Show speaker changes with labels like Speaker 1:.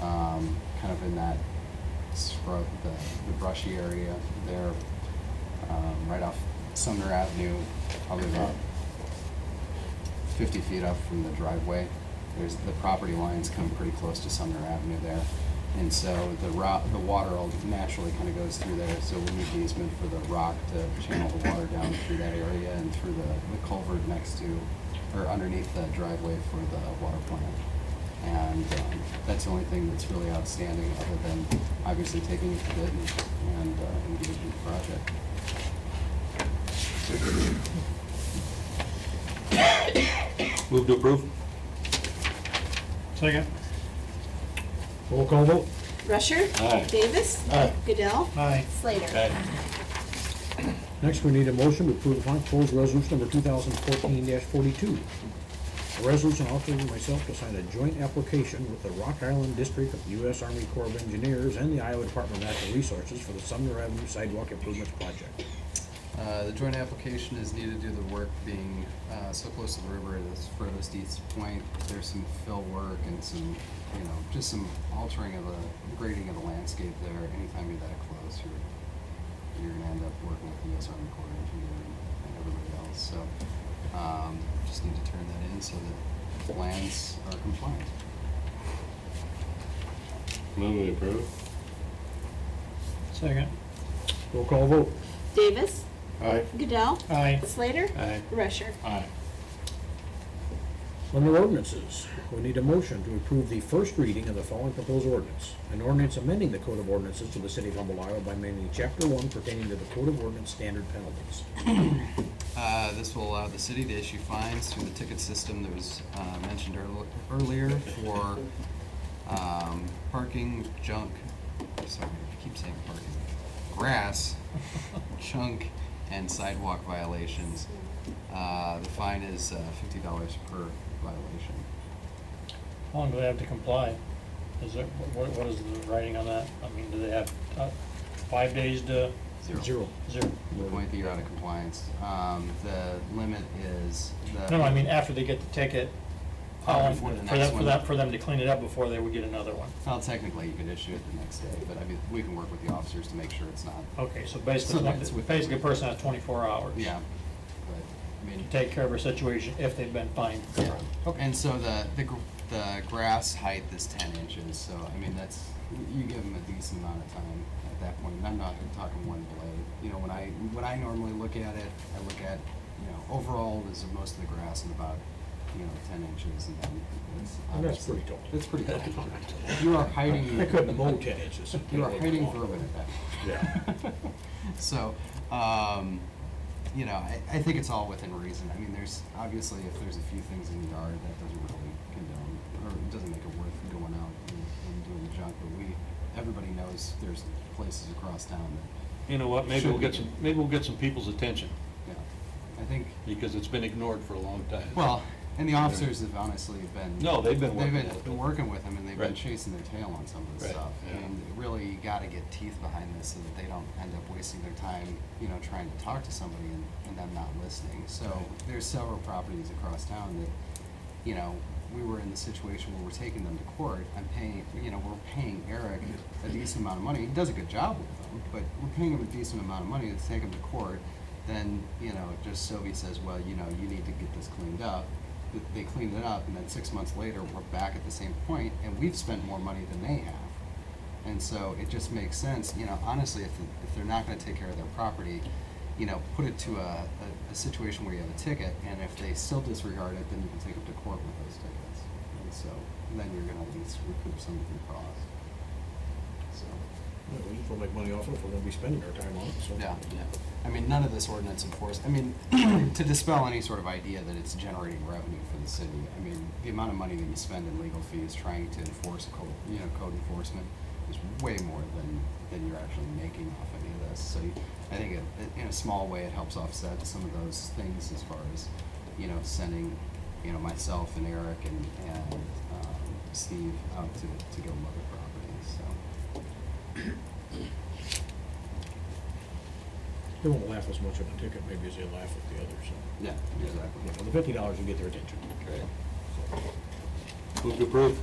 Speaker 1: um, kind of in that scrub, the, the brushy area there, um, right off Sumner Avenue, probably about fifty feet up from the driveway. There's, the property lines come pretty close to Sumner Avenue there. And so the rock, the water all naturally kind of goes through there, so we need easement for the rock to channel the water down through that area and through the, the culvert next to, or underneath the driveway for the water plant. And um, that's the only thing that's really outstanding, other than obviously taking it to bid and, and uh, engaging the project.
Speaker 2: Move to approve?
Speaker 3: Second.
Speaker 4: Roll call vote?
Speaker 5: Rusher.
Speaker 2: Aye.
Speaker 5: Davis.
Speaker 4: Aye.
Speaker 5: Goodell.
Speaker 3: Aye.
Speaker 5: Slater.
Speaker 4: Next, we need a motion to approve and proposed resolution number two thousand fourteen forty-two. A resolution authorizing myself to sign a joint application with the Rock Island District of the U.S. Army Corps of Engineers and the Iowa Department of Natural Resources for the Sumner Avenue Sidewalk Improvements Project.
Speaker 1: Uh, The joint application is needed due to the work being uh, so close to the river at its furthest east point. There's some fill work and some, you know, just some altering of the grading of the landscape there. Anytime you're that close, you're, you're gonna end up working with the US Army Corps of Engineers and everybody else. So um, just need to turn that in so that plans are compliant.
Speaker 2: Move to approve?
Speaker 3: Second.
Speaker 4: Roll call vote?
Speaker 5: Davis.
Speaker 2: Aye.
Speaker 5: Goodell.
Speaker 3: Aye.
Speaker 5: Slater.
Speaker 2: Aye.
Speaker 5: Rusher.
Speaker 2: Aye.
Speaker 4: Under ordinances, we need a motion to approve the first reading of the following proposed ordinance. An ordinance amending the Code of Ordinances of the City of Humble, Iowa by amending Chapter One pertaining to the Code of Ordinance Standard Penalties.
Speaker 1: Uh, This will allow the city to issue fines through the ticket system that was uh, mentioned earl- earlier for um, parking junk, sorry, I keep saying parking, grass, junk, and sidewalk violations. Uh, The fine is uh, $50 per violation.
Speaker 3: How long do they have to comply? Is it, what, what is the writing on that? I mean, do they have uh, five days to
Speaker 4: Zero.
Speaker 3: zero?
Speaker 1: The point that you're out of compliance. Um, The limit is the.
Speaker 3: No, no, I mean, after they get the ticket, how
Speaker 1: Uh,
Speaker 3: long,
Speaker 1: before the
Speaker 3: for
Speaker 1: next
Speaker 3: them, for
Speaker 1: one.
Speaker 3: them, for them to clean it up before they would get another one?
Speaker 1: Well, technically, you could issue it the next day, but I mean, we can work with the officers to make sure it's not,
Speaker 3: Okay, so
Speaker 1: So
Speaker 3: basically, like,
Speaker 1: that's with-
Speaker 3: basically a person has twenty-four hours.
Speaker 1: yeah. But, I
Speaker 3: To
Speaker 1: mean,
Speaker 3: take care of a situation if they've been fined.
Speaker 1: Yeah. And so the, the, gr- the grass height is ten inches, so I mean, that's, you give them a decent amount of time at that point, and I'm not talking one blade. You know, when I, when I normally look at it, I look at, you know, overall is most of the grass in about, you know, ten inches, and then it's
Speaker 4: And that's
Speaker 1: obviously-
Speaker 4: pretty tall.
Speaker 1: That's pretty tall. You are hiding.
Speaker 4: I couldn't mow ten inches.
Speaker 1: You are hiding vermin at that point.
Speaker 4: Yeah.
Speaker 1: So, um, you know, I, I think it's all within reason. I mean, there's, obviously, if there's a few things in the yard that doesn't really condone, or it doesn't make it worth going out and, and doing junk, but we, everybody knows there's places across town
Speaker 2: You know what, maybe
Speaker 1: Should
Speaker 2: we'll
Speaker 1: be.
Speaker 2: get some, maybe we'll get some people's attention,
Speaker 1: that, yeah, I think,
Speaker 2: because it's been ignored for a long time.
Speaker 1: well, and the officers have honestly been.
Speaker 2: No, they've been working
Speaker 1: They've
Speaker 2: at
Speaker 1: been,
Speaker 2: it.
Speaker 1: been working with them, and they've been
Speaker 2: Right.
Speaker 1: chasing their tail on some of this
Speaker 2: Right,
Speaker 1: stuff.
Speaker 2: yeah.
Speaker 1: And really, you gotta get teeth behind this so that they don't end up wasting their time, you know, trying to talk to somebody and, and them not listening. So there's several properties across town that, you know, we were in the situation where we're taking them to court. I'm paying, you know, we're paying Eric a decent amount of money. He does a good job with them, but we're paying him a decent amount of money to take him to court. Then, you know, just Sylvie says, well, you know, you need to get this cleaned up. Th- They cleaned it up, and then six months later, we're back at the same point, and we've spent more money than they have. And so it just makes sense, you know, honestly, if, if they're not gonna take care of their property, you know, put it to a, a, a situation where you have a ticket, and if they still disregard it, then you can take them to court with those tickets. And so, then you're gonna at least recoup some of your cost. So,
Speaker 4: We'll make money off it if we're gonna be spending our time on it, so.
Speaker 1: yeah, yeah. I mean, none of this ordinance enforced, I mean, to dispel any sort of idea that it's generating revenue for the city, I mean, the amount of money that you spend in legal fees trying to enforce code, you know, code enforcement is way more than, than you're actually making off any of this. So you- I think it- in a small way, it helps offset some of those things as far as, you know, sending, you know, myself and Eric and, and um, Steve out to, to go look at properties, so.
Speaker 4: They won't laugh as much at the ticket maybe as they laugh at the others, so.
Speaker 1: Yeah,
Speaker 4: You know, The fifty dollars will get their attention.
Speaker 2: Move to approve?